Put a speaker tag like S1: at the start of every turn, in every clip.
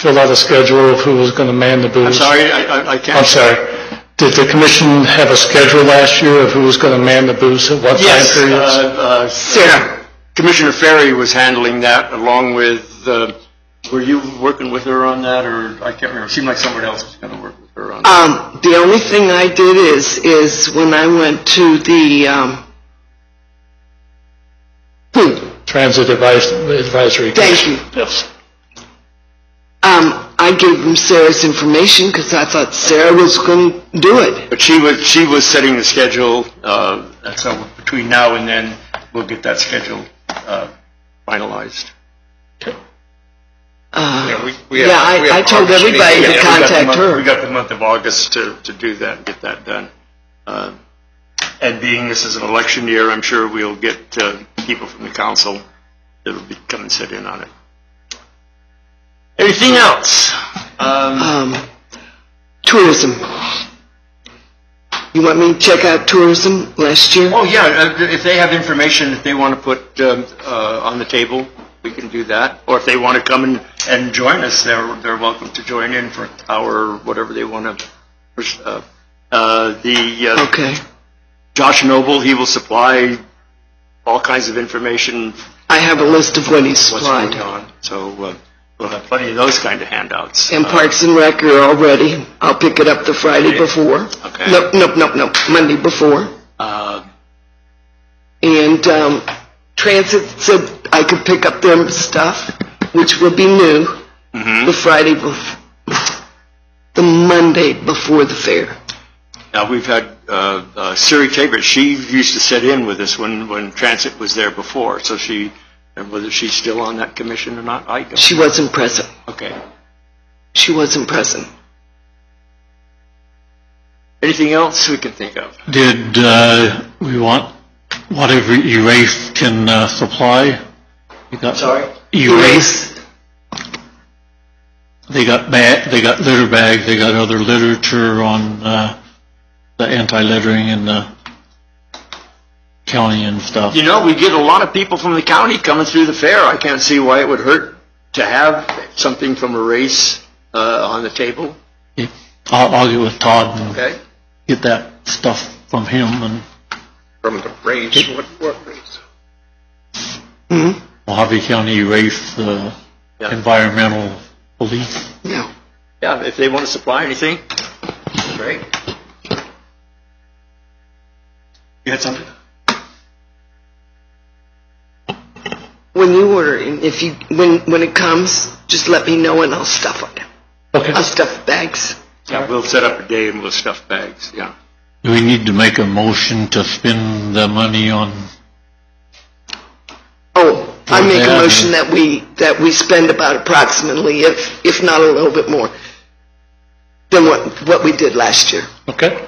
S1: fill out a schedule of who was going to man the booths?
S2: I'm sorry, I, I- I can't. Uh,
S1: I'm sorry. Did the commission have a schedule last year of who was going to man the booths at what time
S2: Yes,
S1: periods?
S2: uh, uh, Commissioner Ferry was handling that along with, uh, were you working with her on that, or I can't remember, it seemed like someone else was going to work with her on that.
S3: Um, the only thing I did is, is when I went to the, um, hmm,
S1: Transit Advis- Advisory
S3: Thank you.
S1: Commission? Yes.
S3: um, I gave them Sarah's information because I thought Sarah was going to do it.
S2: But Uh, she was, she was setting the schedule, uh, and so between now and then, we'll get that schedule uh, finalized.
S3: Uh,
S4: We- we have-
S3: yeah,
S4: we
S3: I, I
S4: have
S3: told
S4: August
S3: everybody
S4: meeting.
S3: to
S2: Yeah, we got the
S3: contact
S2: month- We
S3: her.
S2: got the month of August to, to do that, get that done. Uh, And being this is an election year, I'm sure we'll get uh, people from the council that'll be, come and sit in on it. Anything else? Um,
S3: Um, tourism. You want me to check out tourism last year?
S2: Oh, yeah, uh, if they have information that they want to put um, uh, on the table, we can do that. Or if they want to come and, and join us, they're, they're welcome to join in for an hour, or whatever they want to. The uh,
S3: Okay.
S2: Josh Noble, he will supply all kinds of information,
S3: I have a list of what he
S2: what's going
S3: supplied.
S2: on. So uh, we'll have plenty of those kind of handouts.
S3: And
S2: Uh,
S3: Parks and Rec are all ready. I'll pick it up the Friday before.
S2: Okay.
S3: Nope, nope, nope, nope, Monday before.
S2: uh,
S3: And um, Transit said I could pick up their stuff, which will be new,
S2: uh, mm-hmm.
S3: the Friday bef- the Monday before the fair.
S2: Now, we've had uh, uh, Siri Tabor, she used to sit in with us when, when Transit was there before, so she, and whether she's still on that commission or not, I don't.
S3: She wasn't present.
S2: Okay.
S3: She wasn't present.
S2: Anything else we can think of?
S5: Did uh, we want whatever Erafe can uh, supply? We got
S2: Sorry?
S5: Erafe. They got bag. They got litter bags. They got other literature on uh, the anti-littering in the county and stuff.
S2: You know, we get a lot of people from the county coming through the fair. I can't see why it would hurt to have something from a race uh, on the table,
S5: I'll, I'll get with Todd and
S2: okay?
S5: get that stuff from him and
S4: From the race, what, what race?
S5: Hmm? Mojave County Erafe, the
S2: Yeah.
S5: environmental police.
S3: No.
S2: Yeah, if they want to supply anything, great. You had something?
S3: When you order, and if you when when it comes, just let me know and I'll stuff it.
S5: Okay.
S3: I'll stuff bags.
S2: Yeah, we'll set up a day and we'll stuff bags, yeah.
S5: Do we need to make a motion to spend the money on
S3: Oh, I make a
S5: Yeah.
S3: motion that we, that we spend about approximately, if, if not a little bit more than what, what we did last year.
S1: Okay.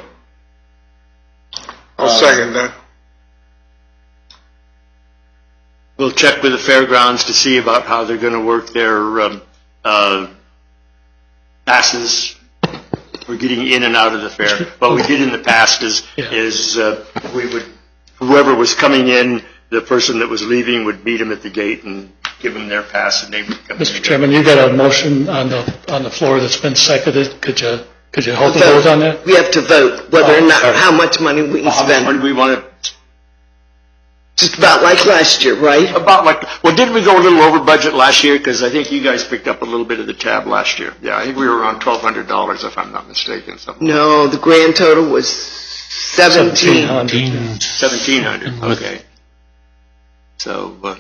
S4: I'll second that.
S2: We'll check with the fairgrounds to see about how they're going to work their um, uh, passes. We're getting in and out of the fair. What we did in the past is, is uh, we would, whoever was coming in, the person that was leaving would meet them at the gate and give them their pass and they would come in.
S1: Mr. Chairman, you got a motion on the, on the floor that's been seconded. Could you, could you hold the vote on that?
S3: We have to vote whether or
S1: Oh,
S3: not,
S1: sorry. Oh,
S3: how much money we can
S2: How much money
S3: spend.
S2: we want to,
S3: Just about like last year, right?
S2: about like, well, didn't we go a little over budget last year? Because I think you guys picked up a little bit of the tab last year. Yeah, I think we were around $1,200 if I'm not mistaken, something.
S3: No, the grand total was seventeen.
S1: 1,700.
S5: teens?
S2: 1,700,
S5: With-
S2: okay. So, uh,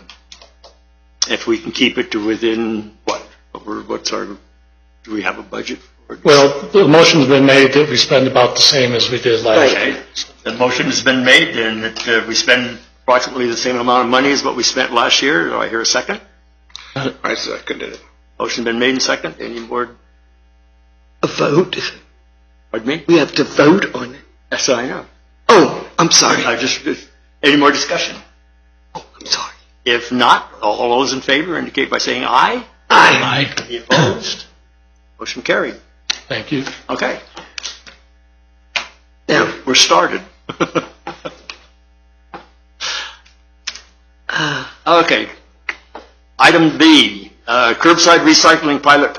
S2: if we can keep it to within, what, what we're- what's our, do we have a budget? for it?
S1: Well, the motion's been made that we spend about the same as we did last year.
S2: Okay, the motion has been made then that uh, we spend approximately the same amount of money as what we spent last year. Do I hear a second?
S4: I seconded it.
S2: Motion been made and second, any more,
S3: A vote?
S2: pardon me?
S3: We have to vote on it?
S2: Yes, I know.
S3: Oh, I'm sorry, Oh,
S2: I just, any more discussion?
S3: I'm sorry.
S2: If not, all those in favor indicate by saying aye.
S3: I,
S1: Aye.
S2: Any opposed? Motion carried.
S1: Thank you.
S2: Okay,
S3: now,
S2: we're started.
S3: uh,
S2: Okay. Item B, uh, curbside recycling pilot